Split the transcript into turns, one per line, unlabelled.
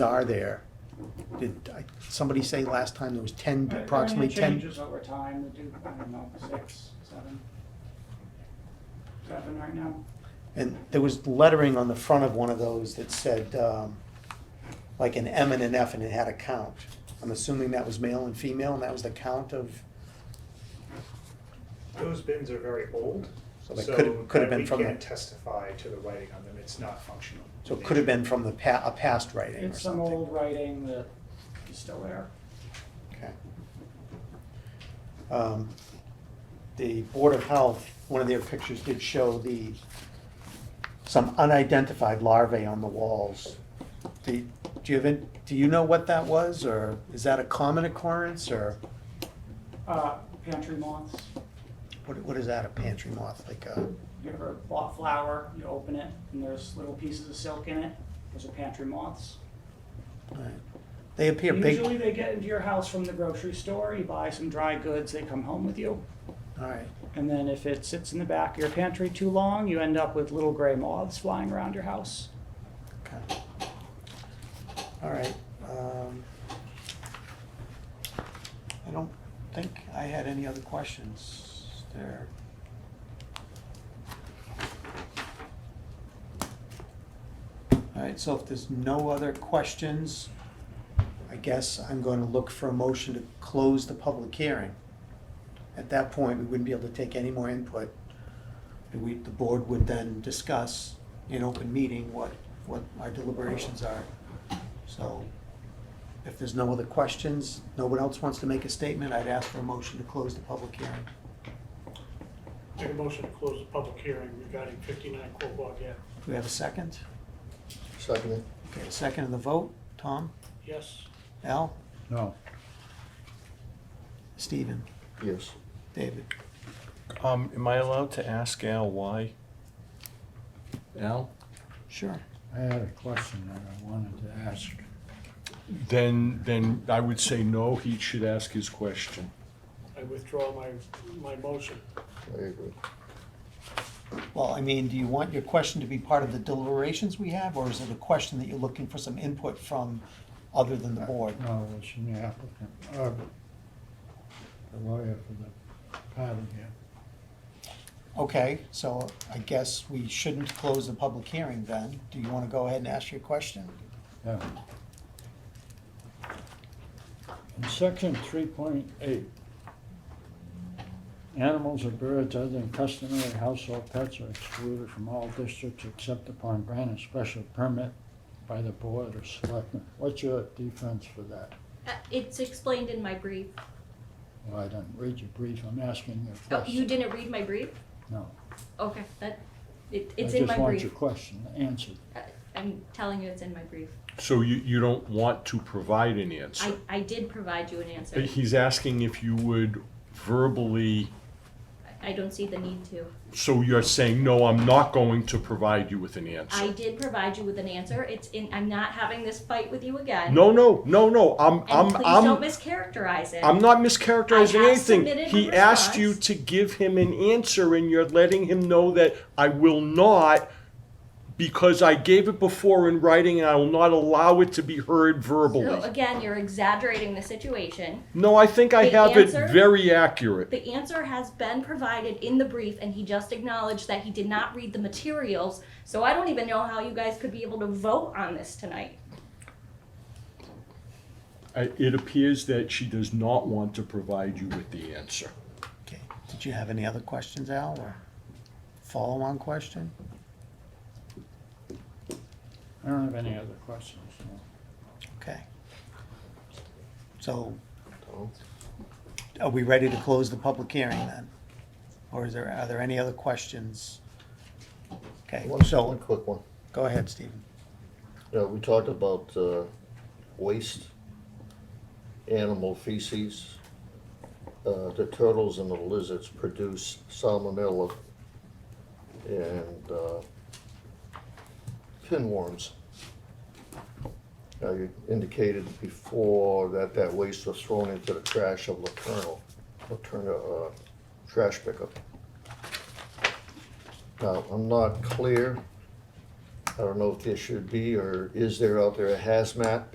are there? Did, I- somebody say last time there was ten,
Right, I mean,
approximately
it
ten?
Changes over time, we do, I don't know, six, seven. Seven right now.
And there was lettering on the front of one of those that said, um, like an M and an F and it had a count. I'm assuming that was male and female and that was the count of,
Those bins are very old,
So
so
they could've- could've
that
been
we
from the-
can't testify to the writing on them, it's not functional.
so it could have been from the pa- a past writing or
It's some
something.
old writing that is still there.
Okay. Um, The Board of Health, one of their pictures did show the, some unidentified larvae on the walls. Do do you have, any- do you know what that was, or is that a common occurrence, or
Uh, pantry moths,
what, what is that, a pantry moth, like a,
you ever bought flour, you open it, and there's little pieces of silk in it, those are pantry moths.
alright. they appear big,
Usually they get into your house from the grocery store, you buy some dry goods, they come home with you.
all right,
And then if it sits in the back of your pantry too long, you end up with little gray moths flying around your house.
okay. All right. um, I don't think I had any other questions there. All right, so if there's no other questions, I guess I'm going to look for a motion to close the public hearing. At that point, we wouldn't be able to take any more input. And we, the board would then discuss in open meeting what, what our deliberations are. So if there's no other questions, no one else wants to make a statement, I'd ask for a motion to close the public hearing.
Make a motion to close the public hearing regarding fifty-nine Quabog Ave.
Do we have a second?
Second.
Okay, a second in the vote. Tom?
Yes,
Al?
No.
Steven?
Yes.
David?
Um, am I allowed to ask Al why? Al?
Sure.
I had a question that I wanted to ask.
Then, then I would say no, he should ask his question.
I withdraw my, my motion.
I agree.
Well, I mean, do you want your question to be part of the deliberations we have, or is it a question that you're looking for some input from other than the board?
No, it's from the applicant, or the lawyer for the party here.
Okay, so I guess we shouldn't close the public hearing then. Do you want to go ahead and ask your question?
Yeah. In section three point eight, animals or birds other than customary household pets are excluded from all districts except upon granted special permit by the board or selectmen. What's your defense for that?
Uh, It's explained in my brief.
Well, I didn't read your brief, I'm asking your
Oh,
question.
you didn't read my brief?
No.
Okay, that, it, it's in
I
my
just want
brief.
your question answered.
Uh, I'm telling you it's in my brief.
So you, you don't want to provide an
I,
answer?
I did provide you an answer.
But He's asking if you would verbally,
I- I don't see the need to.
so you're saying, no, I'm not going to provide you with an
I
answer?
did provide you with an answer. It's in, I'm not having this fight with you again.
No, no, no, no, I'm,
And
I'm,
please
I'm.
don't mischaracterize it.
I'm not mischaracterizing
I have
anything.
submitted a
He asked you
response.
to give him an answer, and you're letting him know that I will not, because I gave it before in writing, and I will not allow it to be heard
So
verbally.
again, you're exaggerating the situation.
No, I think I
The
have it
answer-
very accurate.
The answer has been provided in the brief and he just acknowledged that he did not read the materials. So I don't even know how you guys could be able to vote on this tonight.
I- It appears that she does not want to provide you with the answer.
Okay, did you have any other questions, Al, or follow-on question?
I don't have any other questions, no.
Okay. So
Tom?
are we ready to close the public hearing then? Or is there, are there any other questions? Okay,
One, one
so,
quick one.
go ahead, Stephen.
Yeah, we talked about, uh, waste, animal feces. Uh, the turtles and the lizards produce salmonella and, uh, pinworms. Now, you indicated before that that waste was thrown into the trash of Laterno, Laterno, uh, trash pickup. Now, I'm not clear I don't know if this should be, or is there out there a hazmat